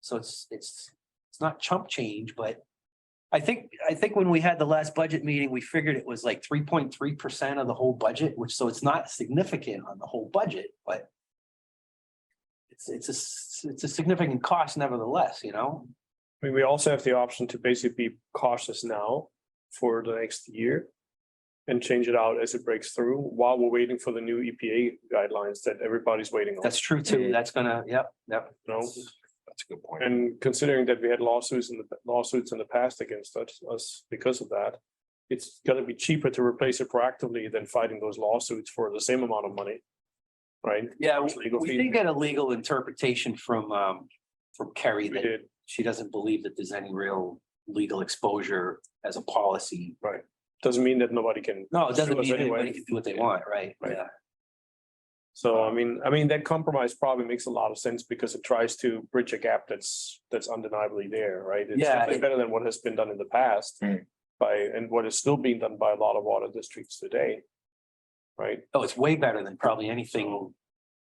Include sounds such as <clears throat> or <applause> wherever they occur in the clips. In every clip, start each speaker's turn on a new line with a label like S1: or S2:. S1: So it's, it's, it's not chump change, but I think, I think when we had the last budget meeting, we figured it was like three point three percent of the whole budget, which, so it's not significant on the whole budget, but it's, it's a, s- it's a significant cost nevertheless, you know?
S2: I mean, we also have the option to basically be cautious now for the next year. And change it out as it breaks through while we're waiting for the new EPA guidelines that everybody's waiting on,
S1: That's true too. That's gonna, yep, yep.
S2: you know?
S3: That's a good point.
S2: And considering that we had lawsuits in the lawsuits in the past against us- us because of that. It's gonna be cheaper to replace it proactively than fighting those lawsuits for the same amount of money. Right?
S1: Yeah,
S2: It's legal
S1: we
S2: fee.
S1: did get a legal interpretation from, um, from Kerry
S2: We
S1: that
S2: did,
S1: she doesn't believe that there's any real legal exposure as a policy.
S2: doesn't mean that nobody can
S1: No, it doesn't
S2: Sure,
S1: mean
S2: anyway.
S1: anybody can do what they want, right?
S2: Right.
S1: Yeah.
S2: So I mean, I mean, that compromise probably makes a lot of sense because it tries to bridge a gap that's, that's undeniably there, right? It's
S1: Yeah,
S2: definitely
S1: it- Hmm.
S2: Better than what has been done in the past
S3: Mm.
S2: by, and what is still being done by a lot of water districts today. Right,
S1: Oh, it's way better than probably anything,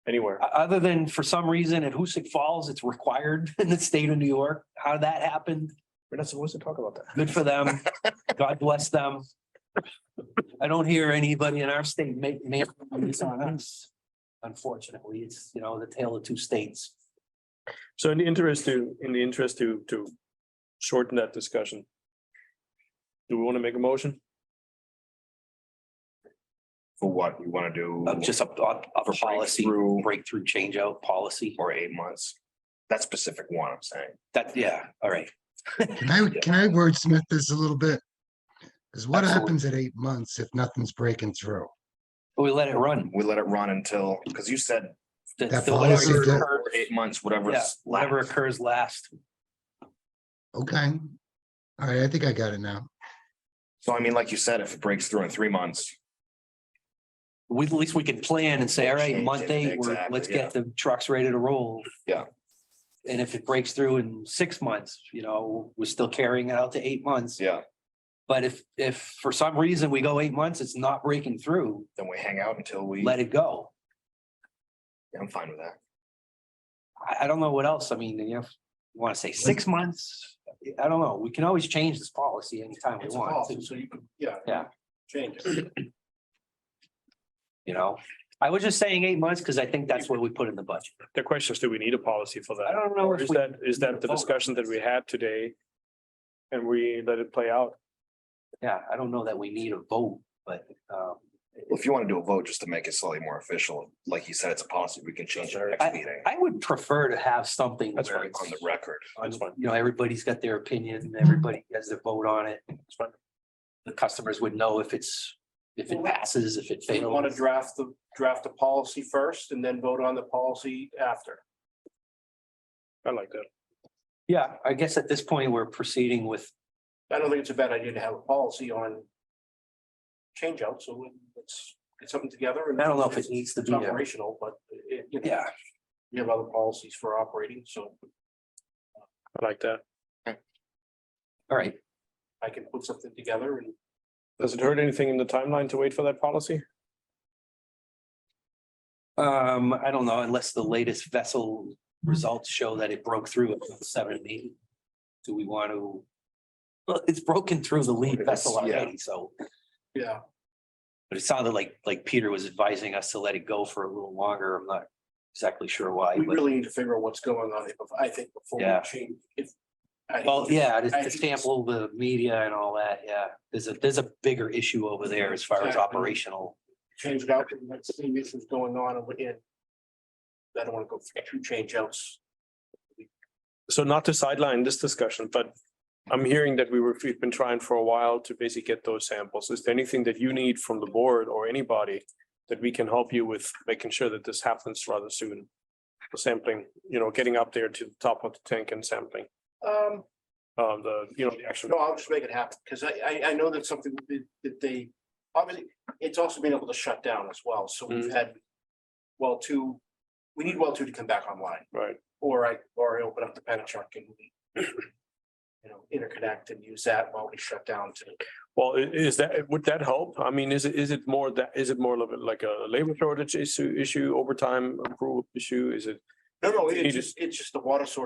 S2: anywhere.
S1: o- other than for some reason at Hoosick Falls, it's required <laughs> in the state of New York. How that happened,
S2: We're not supposed to talk about that.
S1: good for them. God bless them. I don't hear anybody in our state make, make this on us. Unfortunately, it's, you know, the tale of two states.
S2: So in the interest to, in the interest to, to shorten that discussion. Do we want to make a motion?
S3: For what we want to do.
S1: Uh, just a, a a
S3: For
S1: policy,
S3: breakthrough
S1: breakthrough change out policy.
S3: or eight months. That specific one, I'm saying.
S1: That, yeah, all right.
S4: Can I, can I wordsmith this a little bit? Because what
S1: Absolutely.
S4: happens at eight months if nothing's breaking through?
S1: We let it run.
S3: We let it run until, because you said
S1: The-
S4: That
S1: the-
S4: policy
S1: whatever
S4: that-
S1: occurs-
S3: eight months, whatever.
S1: Yeah,
S3: is
S1: whatever
S3: left.
S1: occurs last.
S4: Okay. All right, I think I got it now.
S3: So I mean, like you said, if it breaks through in three months,
S1: We, at least we can plan and say, all right,
S3: Change
S1: month
S3: it,
S1: eight, we're,
S3: exactly,
S1: let's get the trucks ready to roll.
S3: Yeah.
S1: And if it breaks through in six months, you know, we're still carrying it out to eight months.
S3: yeah,
S1: But if, if for some reason we go eight months, it's not breaking through,
S3: then we hang out until we,
S1: let it go.
S3: I'm fine with that.
S1: I, I don't know what else. I mean, you know, if you want to say six months, I don't know. We can always change this policy anytime we
S5: It's a
S1: want.
S5: policy, so you can, yeah.
S1: Yeah.
S5: Change it.
S1: You know, I was just saying eight months because I think that's what we put in the budget.
S2: The question is, do we need a policy for
S1: I
S2: that?
S1: don't know
S2: Or
S1: if
S2: is
S1: we
S2: that, is that the
S1: vote on
S2: discussion that we had today? And we let it play out?
S1: Yeah, I don't know that we need a vote, but um,
S3: Well, <clears throat> If you want to do a vote, just to make it slightly more official, like you said, it's a policy, we can change it at next meeting.
S1: I would prefer to have something
S2: That's
S1: where
S2: fine.
S1: it's,
S3: On the record.
S1: on-
S2: That's fine.
S1: you know, everybody's got their opinion, everybody has their vote on it.
S2: fine.
S1: The customers would know if it's, if it passes, if it
S5: They
S1: fails.
S5: want to draft the, draft a policy first and then vote on the policy after.
S2: I like that.
S1: Yeah, I guess at this point, we're proceeding with,
S5: I don't think it's a bad idea to have a policy on change out, so let's get something together. and-
S1: I don't know if it needs to
S5: It's
S1: be, a-
S5: operational, but it, you know,
S1: yeah,
S5: you have other policies for operating, so
S2: I like that.
S1: all right.
S5: I can put something together and
S2: Does it hurt anything in the timeline to wait for that policy?
S1: Um, I don't know, unless the latest vessel results show that it broke through at seven and eight. Do we want to? Well, it's broken through the lead vessel
S3: It's- yeah.
S1: already, so.
S5: Yeah,
S1: But it sounded like, like Peter was advising us to let it go for a little longer. I'm not exactly sure why,
S5: we
S1: but,
S5: really need to figure out what's going on, if- I think, before we
S1: Yeah.
S5: change. if- I think
S1: well,
S5: it's-
S1: yeah, to
S5: I
S1: to
S5: think
S1: sample the media and all that, yeah. There's a, there's a bigger issue over there as far as
S5: Exactly.
S1: operational.
S5: change it out, and let's see if issues going on and within. I don't wanna go through two change outs.
S2: So not to sideline this discussion, but I'm hearing that we were, we've been trying for a while to basically get those samples. Is there anything that you need from the board or anybody that we can help you with making sure that this happens rather soon? The Sampling, you know, getting up there to the top of the tank and sampling,
S5: Um,
S2: um, the, you know, the actual.
S5: no, I'll just make it happen, cause I, I, I know that's something that- that they, obviously, it's also been able to shut down as well, so we've
S2: Mm.
S5: had. Well, two, we need well two to come back online,
S2: Right,
S5: or I, or I open up the Penachuk and we. You know, interconnect and use that while we shut down to.
S2: well, i- is that, would that help? I mean, is it, is it more that, is it more of a- like a labor shortage issue, issue, overtime approval issue? Is it
S5: No, no,
S2: You
S5: it's
S2: just-
S5: just, it's just the water source